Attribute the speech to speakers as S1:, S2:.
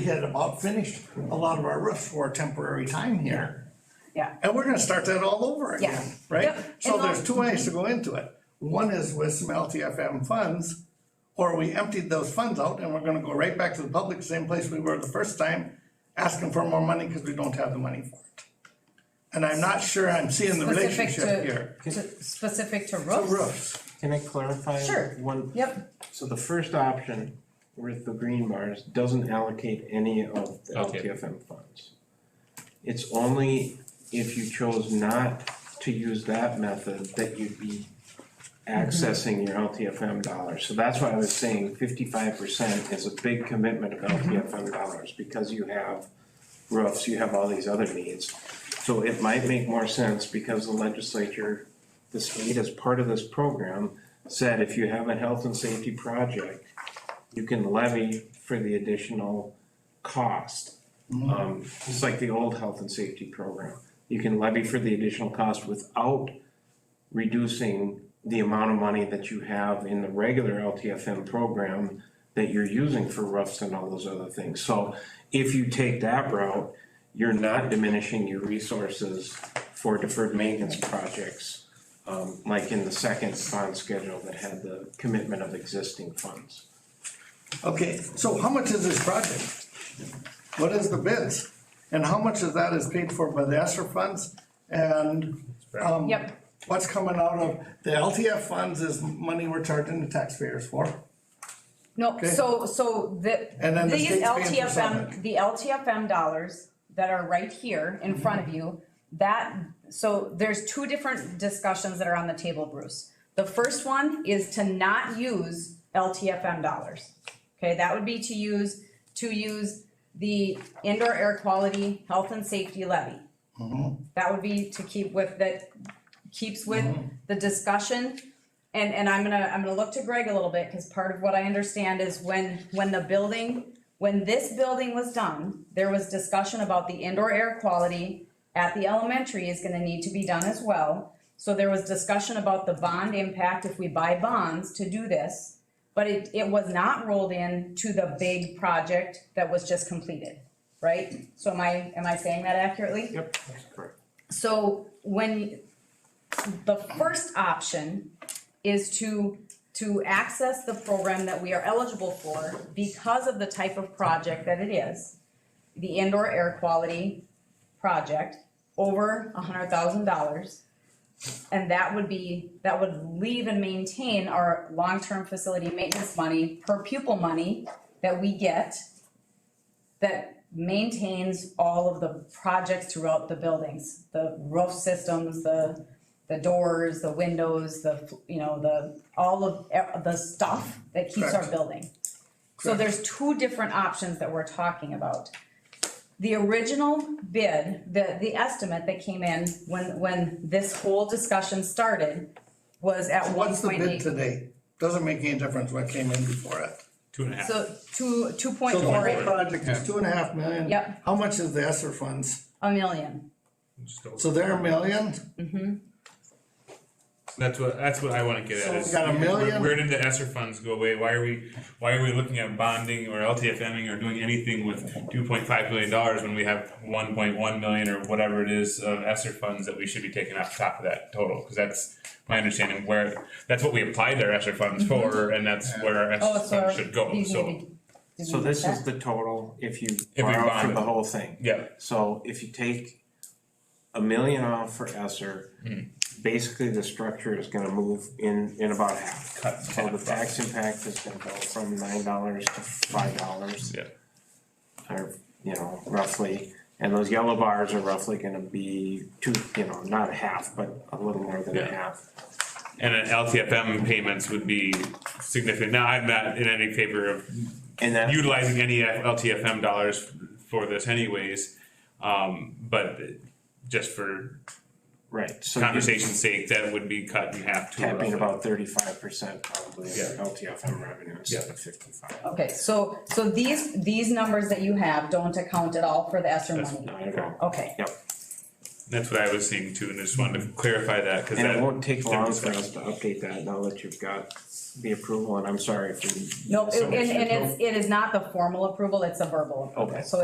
S1: We had about finished a lot of our roofs for a temporary time here.
S2: Yeah.
S1: And we're gonna start that all over
S2: Yeah.
S1: again, right?
S2: Yep.
S1: So
S2: And
S1: there's
S2: all- Mhm.
S1: two ways to go into it. One is with some LTFM funds, or we emptied those funds out and we're gonna go right back to the public, same place we were the first time, asking for more money because we don't have the money for it. And I'm not sure I'm seeing the
S2: Specific
S1: relationship
S2: to,
S1: here.
S2: to, specific to
S1: The
S2: roofs?
S1: Roofs,
S3: Can I clarify?
S2: Sure.
S3: One.
S2: Yep,
S3: So the first option with the green bars doesn't allocate any of the
S4: Okay.
S3: LTFM funds. It's only if you chose not to use that method that you'd be accessing your LTFM dollars. So that's why I was saying fifty-five percent is a big commitment of LTFM dollars because you have roofs, you have all these other needs. So it might make more sense because the legislature, the state as part of this program, said if you have a health and safety project, you can levy for the additional cost. Um, it's like the old health and safety program. You can levy for the additional cost without reducing the amount of money that you have in the regular LTFM program that you're using for roofs and all those other things. So if you take that route, you're not diminishing your resources for deferred maintenance projects, um, like in the second bond schedule that had the commitment of existing funds.
S1: okay, so how much is this project? What is the bids? And how much of that is paid for by the ESSER funds and um,
S2: yep,
S1: what's coming out of, the LTF funds is money we're charging the taxpayers for.
S2: no,
S1: Okay.
S2: so, so the,
S1: And then the
S2: these
S1: state's paying for
S2: LTFM,
S1: something. Mm-hmm.
S2: the LTFM dollars that are right here in front of you, that, so there's two different discussions that are on the table, Bruce. The first one is to not use LTFM dollars. Okay, that would be to use, to use the indoor air quality, health and safety levy.
S1: Mm-hmm.
S2: That would be to keep with, that keeps with
S3: Mm-hmm.
S2: the discussion. And, and I'm gonna, I'm gonna look to Greg a little bit, cause part of what I understand is when, when the building, when this building was done, there was discussion about the indoor air quality at the elementary is gonna need to be done as well. So there was discussion about the bond impact if we buy bonds to do this. But it, it was not rolled in to the big project that was just completed, right? So am I, am I saying that accurately?
S3: Yep. That's correct.
S2: So when, the first option is to, to access the program that we are eligible for because of the type of project that it is, the indoor air quality project, over a hundred thousand dollars. And that would be, that would leave and maintain our long-term facility maintenance money, per pupil money that we get that maintains all of the projects throughout the buildings, the roof systems, the, the doors, the windows, the, you know, the, all of, e- the stuff that keeps our
S1: Correct.
S2: building. So there's two different options that we're talking about. The original bid, the, the estimate that came in when, when this whole discussion started was at one
S1: What's the
S2: point
S1: bid
S2: eight.
S1: today? Doesn't make any difference what came in before it.
S4: Two and a half.
S2: So two, two point
S1: So the
S2: four,
S1: whole
S2: eight-
S1: project is two and a half million.
S2: Yep.
S1: How much is the ESSER funds?
S2: a million.
S4: Just over.
S1: So they're a million?
S4: That's what, that's what I wanna get
S1: So
S4: at
S1: we
S4: is.
S1: got a
S4: where-
S1: million?
S4: Where did the ESSER funds go away? Why are we, why are we looking at bonding or LTFMing or doing anything with two point five million dollars when we have one point one million or whatever it is of ESSER funds that we should be taking off top of that total? Cause that's my understanding where, that's what we applied our ESSER funds for and that's where our
S2: Oh,
S4: ESSER
S2: so.
S4: funds should go,
S2: these
S4: so,
S2: need to- did
S3: So
S2: we
S3: this
S2: get
S3: is the total if you
S4: we
S3: borrow for
S4: bonded.
S3: the whole thing.
S4: yeah.
S3: So if you take a million off for Esser,
S4: Hmm.
S3: basically the structure is gonna move in, in about half.
S4: Cut in
S3: So the
S4: half,
S3: tax impact is gonna go from nine dollars to five dollars.
S4: Yeah.
S3: Or, you know, roughly, and those yellow bars are roughly gonna be two, you know, not a half, but a little more than a
S4: Yeah.
S3: half.
S4: And then LTFM payments would be significant. Now, I'm not in any favor of
S3: And that,
S4: utilizing any LTFM dollars for this anyways. Um, but just for
S3: right, so you're
S4: conversation's sake, that would be cut in half to
S3: tapping
S4: roughly.
S3: about thirty-five percent probably of your
S4: Yeah.
S3: LTFM revenue instead of fifty-five.
S2: Okay, so, so these, these numbers that you have don't account at all for the Esser
S4: That's
S2: money?
S3: Not at all.
S2: Okay.
S3: Yep.
S4: That's what I was seeing too, and I just wanted to clarify that, cause
S3: And
S4: that.
S3: it won't take
S4: there
S3: long
S4: was
S3: for
S4: that.
S3: us to update that now that you've got the approval, and I'm sorry for.
S2: No, it-
S3: so
S2: and,
S3: much
S2: and
S3: info.
S2: it's, it is not the formal approval, it's a verbal
S3: Okay.
S2: approval, so